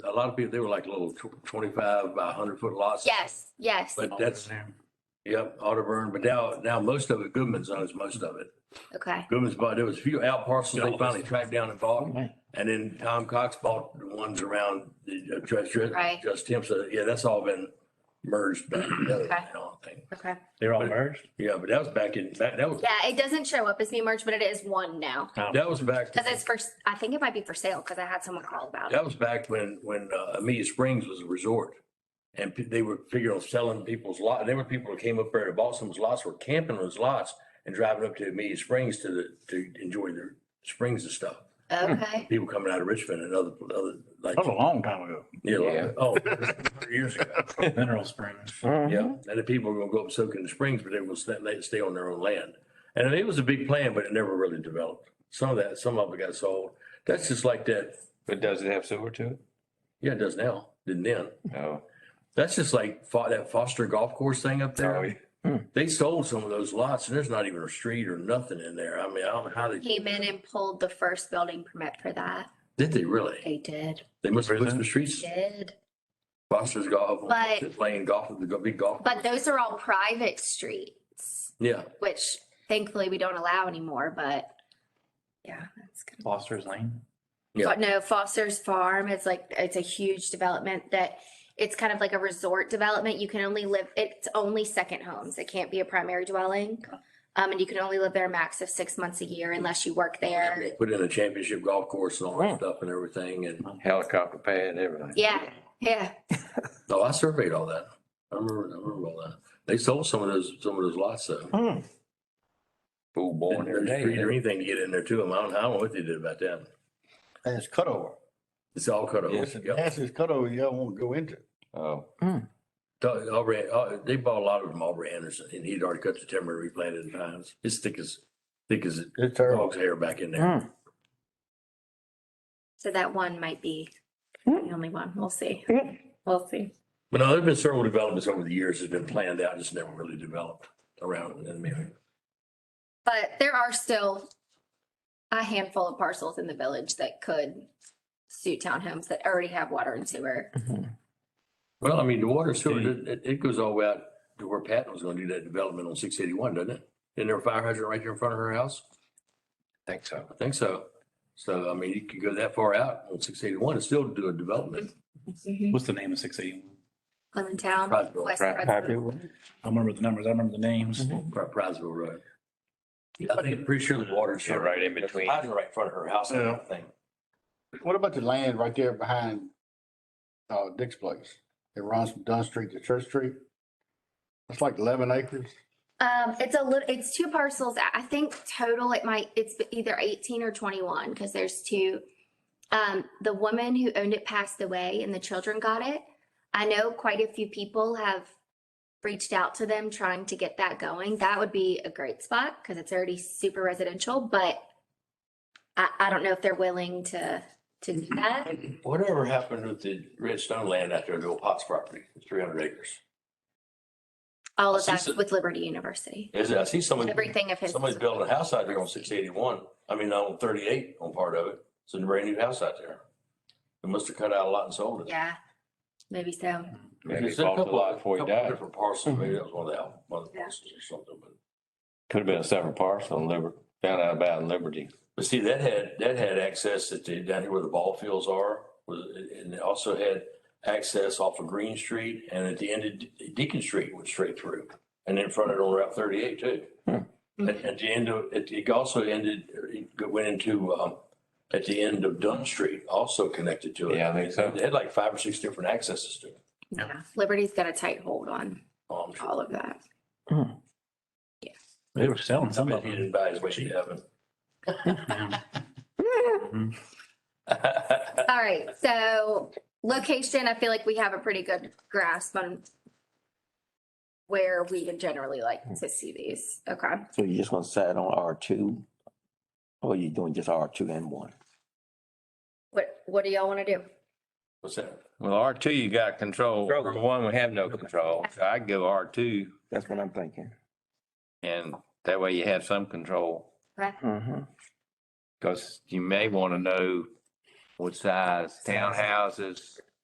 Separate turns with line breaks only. a lot of people, they were like little tw- twenty-five by hundred foot lots.
Yes, yes.
But that's, yep, Audubon, but now, now most of it, Goodman's owns most of it.
Okay.
Goodman's bought, there was a few out parcels they finally tracked down and bought. And then Tom Cox bought the ones around the uh, just, just-
Right.
just him. So uh, yeah, that's all been merged back together
Okay.
now, I think.
Okay.
They're all merged?
Yeah, but that was back in, that, that was,
Yeah, it doesn't show up as being merged, but it is one now.
that was back.
Cause it's first, I think it might be for sale because I had someone call about it.
That was back when, when uh, Amelia Springs was a resort. And pe- they were figuring on selling people's lot. There were people that came up there to bought someone's lots, were camping on his lots and driving up to Amelia Springs to the, to enjoy their springs and stuff.
Okay.
People coming out of Richmond and other, other, like,
That was a long time ago.
yeah,
Oh, Yeah.
like, oh, 100 years ago.
Mineral Springs.
Mm-hmm.
Yeah. And the people were gonna go up soaking the springs, but they will stay, they stay on their own land. And it was a big plan, but it never really developed. Some of that, some of it got sold. That's just like that.
But does it have sewer to it?
Yeah, it does now, didn't then.
Oh.
No.
That's just like fo- that Foster Golf Course thing up
No,
there. They sold some of those lots and there's not even a street or nothing in there. I mean, I don't know how they,
Came in and pulled the first building permit for that.
did they really?
They did,
They must have put some
Really?
streets,
did.
Foster's Golf,
But-
playing golf with the big golf.
But those are all private streets,
Yeah,
which thankfully we don't allow anymore, but yeah, that's good.
Foster's Lane.
Yeah.
But no, Foster's Farm is like, it's a huge development that it's kind of like a resort development. You can only live, it's only second homes. It can't be a primary dwelling. Um, and you can only live there a max of six months a year unless you
Oh,
work there.
They put in a championship golf course and all
Hmm.
that stuff and everything. And,
Helicopter pad, everything.
Yeah, yeah.
oh, I surveyed all that. I remember, I remember all that. They sold some of those, some of those lots though.
Hmm. Fool born
Didn't really
every day.
street Or anything to get in there to them. I don't, I don't know what they did about that.
And it's cut over.
It's all cut off.
Yes, it
Yep.
That's this cut over you don't want to go into.
Oh,
Doug- Aubrey, uh, they bought a lot of them, Aubrey Anderson, and he'd already cut the timber and replanted the pines. It's thick as, thick as a
It's terrible.
dog's hair back in there.
So that one might be the only one. We'll see. We'll see.
But no, there've been several developments over the years that's been planned out, just never really developed around it. I mean,
But there are still a handful of parcels in the village that could suit townhomes that already have water and sewer.
Well, I mean, the water sewer, it, it- it goes all the way out to where Patton was gonna do that development on six eighty-one, doesn't it? Isn't there a fire hydrant right there in front of her house?
I think so.
I think so. So, I mean, you could go that far out on six eighty-one and still do a development.
What's the name of six eighty-one?
Cleveland Town.
Prizeville,
West
Pri-
Prizeville.
I remember the numbers. I remember the names.
Mm-hmm.
Pri- Prizeville Road. I think, pretty sure the water
Yeah,
sewer.
right in between.
Hydrant right in front of her house, I think. Oh.
What about the land right there behind uh, Dick's place? It runs from Dunn Street to Church Street. It's like eleven acres.
Um, it's a little, it's two parcels. I- I think total it might, it's either eighteen or twenty-one because there's two. Um, the woman who owned it passed away and the children got it. I know quite a few people have reached out to them trying to get that going. That would be a great spot because it's already super residential, but I, I don't know if they're willing to, to do that.
Whatever happened with the redstone land out there, the old Potts property, three hundred acres?
All
I
of
see
that's
some-
with Liberty University.
Is it, I see somebody,
Everything of his.
somebody's building a house out there on six eighty-one, I mean, on thirty-eight on part of it. It's a brand new house out there. They must have cut out a lot and sold it.
Yeah, maybe so.
Maybe he
There's a
bought the
couple-
lot before he
couple
died.
Different parcels, maybe that was one of the, out- one of the
Yeah.
parcels or something, but.
Could have been a separate parcel in Liberty, found out about in Liberty.
But see, that had, that had access that they, down here where the ball fields are, was, and it also had access off of Green Street and at the end of Deacon Street went straight through. And in front of it on Route thirty-eight too. At, at the end of, it, it also ended, it went into, um, at the end of Dunn Street, also connected to it.
Yeah, I think so.
They had like five or six different accesses to it.
Yeah, Liberty's got a tight hold on
Um,
all of that.
They were selling some
but
of
he
them.
didn't buy his way to heaven.
All right, so location, I feel like we have a pretty good grasp on where we would generally like to see these. Okay,
So you just want to decide on R two? Or you doing just R two and one?
what, what do y'all want to do?
What's that?
Well, R two, you got control.
Control.
Number one, we have no control. So I give R two
That's what I'm thinking.
and that way you have some control.
Mhm.
Because you may want to know what size townhouses,